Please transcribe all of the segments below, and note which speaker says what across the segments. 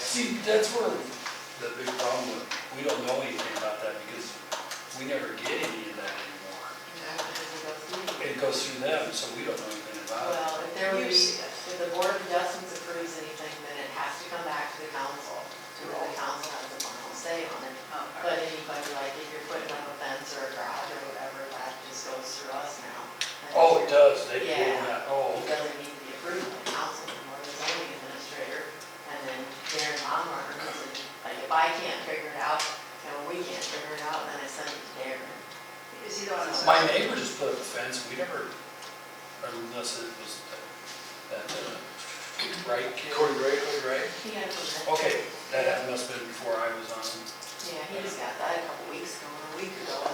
Speaker 1: see, that's where,
Speaker 2: The big problem with, we don't know anything about that because we never get any of that anymore. It goes through them, so we don't know anything about it.
Speaker 3: Well, if there was,
Speaker 4: Here's-
Speaker 3: if the board of adjustments approves anything, then it has to come back to the council. to where The council has the final say on it. But anybody, like if you're putting up a fence or a garage or whatever, that just goes through us now. And
Speaker 2: Oh, it does, they pull
Speaker 3: Yeah.
Speaker 2: that, oh,
Speaker 3: It doesn't need to be approved by the council anymore, the zoning administrator. And then they're Monmar, like if I can't figure it out, and we can't figure it out, then I send it to Darren.
Speaker 4: Is he the one?
Speaker 2: my neighbor just put up a fence, we never, unless it was that, that, uh, right kid.
Speaker 1: Corey Gray?
Speaker 2: Right?
Speaker 3: He had to.
Speaker 2: Okay, that had- must have been before I was on,
Speaker 3: Yeah, he just got that a couple weeks ago, a week ago.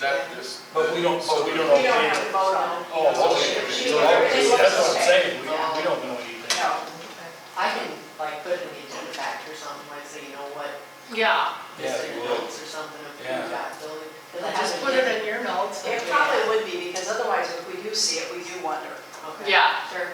Speaker 5: That just.
Speaker 2: but we don't, but we don't know.
Speaker 4: We don't have to vote on it.
Speaker 2: Oh, okay,
Speaker 4: She-
Speaker 2: So that's
Speaker 4: she-
Speaker 2: that's what I'm
Speaker 4: okay.
Speaker 2: saying, we don't, we don't know anything.
Speaker 4: No,
Speaker 3: I can like put in the agenda factor or something, like say, you know what,
Speaker 6: Yeah,
Speaker 2: Yeah,
Speaker 3: this in
Speaker 2: well,
Speaker 3: notes or something of who
Speaker 2: Yeah.
Speaker 3: got building. 'cause I
Speaker 6: just
Speaker 3: haven't
Speaker 6: put it
Speaker 3: yet-
Speaker 6: in your notes.
Speaker 4: it probably would be, because otherwise if we do see it, we do wonder.
Speaker 3: Okay.
Speaker 6: Yeah.
Speaker 3: Sure.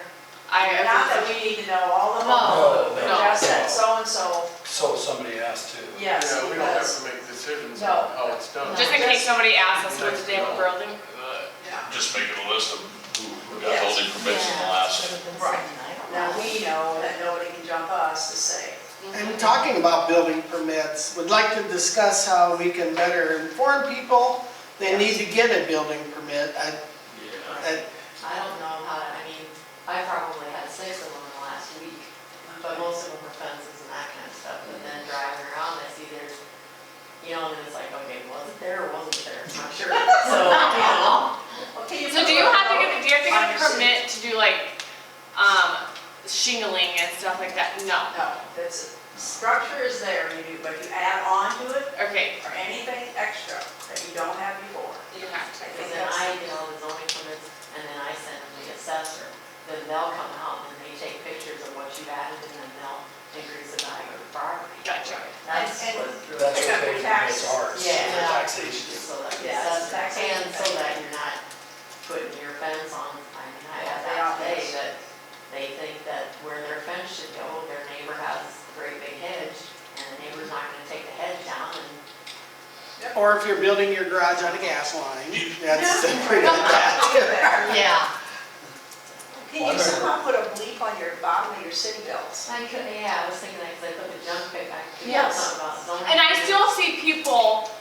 Speaker 6: I,
Speaker 4: Not that we need to know all of them.
Speaker 6: No,
Speaker 2: No,
Speaker 6: no.
Speaker 4: Just that so-and-so,
Speaker 2: So somebody asked to.
Speaker 4: yes,
Speaker 5: Yeah, we don't have
Speaker 4: because,
Speaker 5: to make decisions
Speaker 4: No.
Speaker 5: on how it's done.
Speaker 6: just in case somebody asks us what to do with building.
Speaker 4: yeah.
Speaker 7: Just making a list of who who got
Speaker 4: Yes.
Speaker 7: building permits in the last,
Speaker 4: Right. now
Speaker 3: Now,
Speaker 4: we know that nobody can jump us to say,
Speaker 8: And talking about building permits, would like to discuss how we can better inform people they need to get a building permit. I- I-
Speaker 3: I don't know how, I mean, I probably had six of them in the last week, but most of them were fences and that kind of stuff. But then driving around, I see there's, you know, and it's like, okay, was it there or wasn't there? I'm not sure. So, you know.
Speaker 4: okay, you.
Speaker 6: So do you have to get, do you have to get a permit to do like, um, shingling and stuff like that? No.
Speaker 4: No, that's, structure is there, you do, but if you add on to it,
Speaker 6: Okay.
Speaker 4: or anything extra that you don't have before.
Speaker 6: You have to.
Speaker 4: I
Speaker 3: Because
Speaker 4: think
Speaker 3: then I
Speaker 4: that's,
Speaker 3: get all the zoning permits, and then I send them to the assessor, then they'll come out and they take pictures of what you've added, and then they'll increase the value of the property.
Speaker 6: Gotcha.
Speaker 3: That's
Speaker 4: And-
Speaker 3: what,
Speaker 2: That's
Speaker 4: Pick up
Speaker 2: okay,
Speaker 4: your
Speaker 2: that's
Speaker 4: taxes.
Speaker 2: ours,
Speaker 3: Yeah.
Speaker 2: for taxation.
Speaker 3: so that, the
Speaker 4: Yes,
Speaker 3: assessor-
Speaker 4: taxation.
Speaker 3: and so that you're not putting your fence on, I mean, I had
Speaker 4: They are
Speaker 3: that today,
Speaker 4: fenced.
Speaker 3: that they think that where their fence should go, their neighbor has a great big hedge, and the neighbor's not gonna take the hedge down, and
Speaker 8: Or if you're building your garage on a gas line, that's pretty bad.
Speaker 3: Yeah.
Speaker 4: Can you somehow put a bleep on your bottom of your city bills?
Speaker 3: I could, yeah, I was thinking, like, I put the junk pick, I could do
Speaker 4: Yes.
Speaker 3: something about zoning.
Speaker 6: And I still see people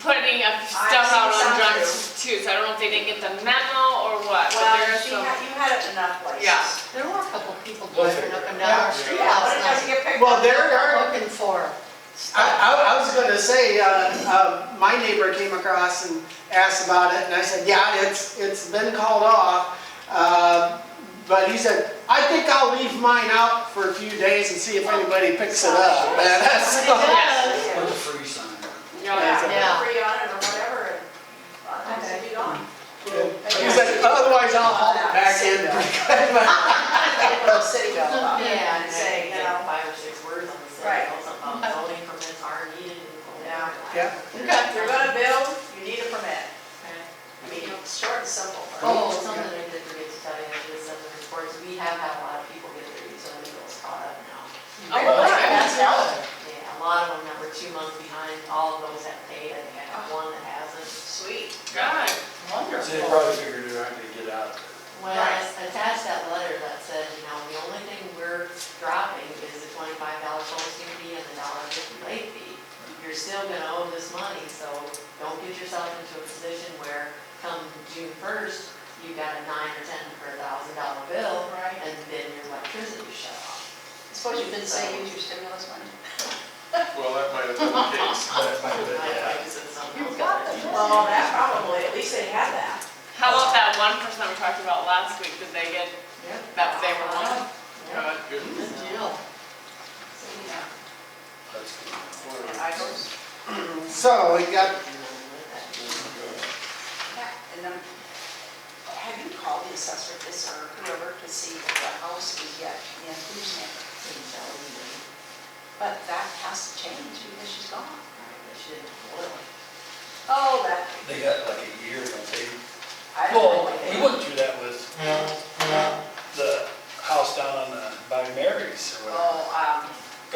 Speaker 6: putting up stuff
Speaker 4: seen
Speaker 6: out
Speaker 4: some
Speaker 6: on drugs
Speaker 4: too.
Speaker 6: too, so I don't know if they didn't get the memo or what. but
Speaker 4: Well,
Speaker 6: there is
Speaker 4: you
Speaker 6: some-
Speaker 4: had, you had it enough places.
Speaker 6: Yeah.
Speaker 9: There were a couple people
Speaker 2: We'll
Speaker 9: driving
Speaker 2: figure
Speaker 9: up
Speaker 2: it
Speaker 9: and down our
Speaker 8: out.
Speaker 9: street
Speaker 4: Yeah, but
Speaker 9: last
Speaker 4: it doesn't
Speaker 9: night.
Speaker 4: get picked
Speaker 8: Well,
Speaker 4: up.
Speaker 8: there are,
Speaker 9: Looking for,
Speaker 8: I, I- I was gonna say, uh, uh, my neighbor came across and asked about it, and I said, yeah, it's, it's been called off. Uh, But he said, I think I'll leave mine out for a few days and see if anybody picks it up. And that's-
Speaker 6: Yes.
Speaker 2: Put the free sign up.
Speaker 6: Yeah.
Speaker 4: Yeah,
Speaker 9: Yeah.
Speaker 4: put a free on it or whatever, and otherwise it'll be gone.
Speaker 8: He said, otherwise I'll haul it back in.
Speaker 4: Put a city bill up
Speaker 3: Yeah,
Speaker 4: and
Speaker 3: and say,
Speaker 4: say, you know,
Speaker 3: five or six words on the
Speaker 4: Right.
Speaker 3: side, something about zoning permits are needed. and-
Speaker 4: Yeah.
Speaker 8: Yeah.
Speaker 4: you're gonna, you're gonna build, you need a permit. I mean, short and simple.
Speaker 3: Oh, something I did forget to tell you, I did send the reports, we have had a lot of people get their utility bills caught up now.
Speaker 6: Oh,
Speaker 4: Well,
Speaker 6: okay.
Speaker 4: that's valid.
Speaker 3: Yeah, a lot of them that were two months behind, all of those have paid, I think I have one that hasn't.
Speaker 4: Sweet.
Speaker 6: Good.
Speaker 2: So they probably figured they're not gonna get out of there.
Speaker 3: Well, I s- attached that letter that said, you know, the only thing we're dropping is the twenty-five dollar posting fee and the dollar fifty late fee. You're still gonna owe this money, so don't get yourself into a position where come June first, you've got a nine or ten or a thousand dollar bill,
Speaker 4: Right.
Speaker 3: and then your electricity is shut off.
Speaker 4: Suppose you didn't say use your stimulus money.
Speaker 5: Well, that might have been the case.
Speaker 2: That might have been,
Speaker 3: I-
Speaker 2: yeah.
Speaker 3: I said something
Speaker 9: you
Speaker 3: else.
Speaker 9: got the bill.
Speaker 4: Well, that probably, at least they had that.
Speaker 6: How about that one person we talked about last week, did they get that same one?
Speaker 3: Yeah.
Speaker 5: God, good.
Speaker 9: Good deal.
Speaker 2: That's good.
Speaker 4: I goes,
Speaker 8: So we got
Speaker 3: uh,
Speaker 4: yeah, and then, have you called the assessor this or whoever to see if the house is yet in whose name? But that has to change because she's gone. Oh, that,
Speaker 2: They got like a year, don't they?
Speaker 4: I don't
Speaker 2: Well,
Speaker 4: know.
Speaker 2: we went through that with the house down on the, by uh, Mary's or whatever.
Speaker 4: Oh, um,